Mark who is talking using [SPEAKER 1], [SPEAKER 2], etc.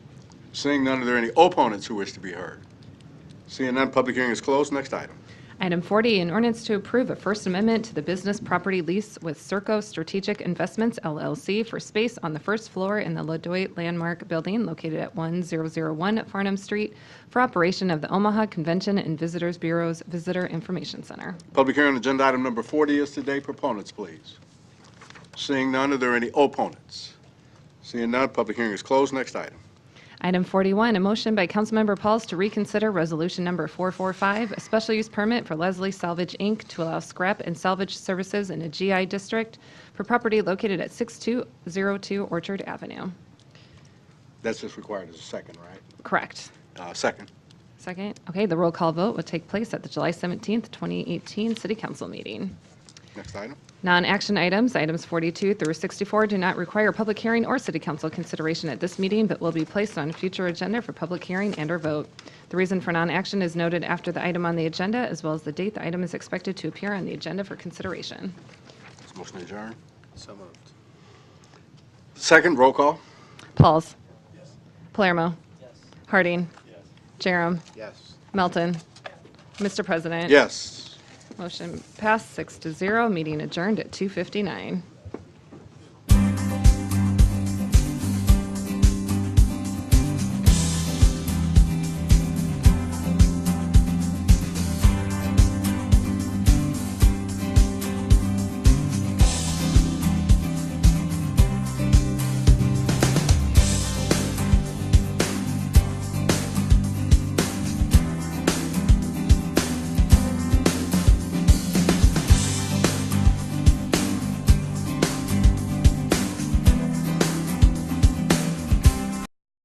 [SPEAKER 1] Seeing none, are there any opponents who wish to be heard? Seeing none, public hearing is closed. Next item.
[SPEAKER 2] Item 40, an ordinance to approve a First Amendment to the business property lease with Serco Strategic Investments LLC for space on the first floor in the LaDoit Landmark Building located at 1001 Farnham Street for operation of the Omaha Convention and Visitors Bureau's Visitor Information Center.
[SPEAKER 1] Public hearing on agenda item number 40 is today. Proponents, please. Seeing none, are there any opponents? Seeing none, public hearing is closed. Next item.
[SPEAKER 2] Item 41, a motion by Councilmember Pauls to reconsider Resolution Number 445, a special use permit for Leslie Salvage, Inc. to allow scrap and salvage services in a GI district for property located at 6202 Orchard Avenue.
[SPEAKER 1] That's just required as a second, right?
[SPEAKER 2] Correct.
[SPEAKER 1] Uh, Second.
[SPEAKER 2] Second. Okay, the roll call vote will take place at the July 17th, 2018 City Council meeting.
[SPEAKER 1] Next item.
[SPEAKER 2] Non-action items, items 42 through 64, do not require public hearing or city council consideration at this meeting, but will be placed on a future agenda for public hearing and/or vote. The reason for non-action is noted after the item on the agenda, as well as the date the item is expected to appear on the agenda for consideration.
[SPEAKER 1] Is motion adjourned?
[SPEAKER 3] So moved.
[SPEAKER 1] Second, roll call.
[SPEAKER 2] Pauls. Palermo. Harding. Jerem.
[SPEAKER 3] Yes.
[SPEAKER 2] Melton. Mr. President.
[SPEAKER 1] Yes.
[SPEAKER 2] Motion passed six to zero, meeting adjourned at 2:59.